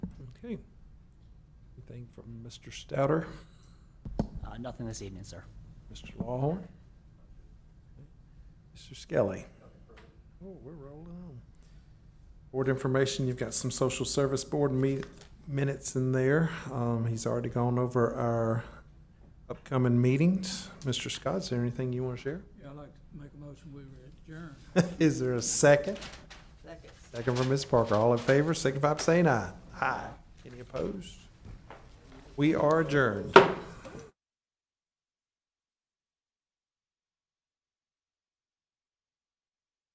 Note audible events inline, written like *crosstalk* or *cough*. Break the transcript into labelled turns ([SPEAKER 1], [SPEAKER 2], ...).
[SPEAKER 1] Okay. Anything from Mr. Stouter,
[SPEAKER 2] Uh, Nothing this evening, sir.
[SPEAKER 1] Mr. Lawhorn? Mr. Skelly? Oh, we're rolling on. Board information, you've got some social service board meet, minutes in there. Um, he's already gone over our upcoming meetings. Mr. Scott, is there anything you want to share? *laughs*
[SPEAKER 3] Yeah, I'd like to make a motion, we adjourn.
[SPEAKER 1] Is there a second?
[SPEAKER 4] Second.
[SPEAKER 1] Second from Ms. Parker. All in favor, signify by saying aye. Aye. Any opposed? We are adjourned.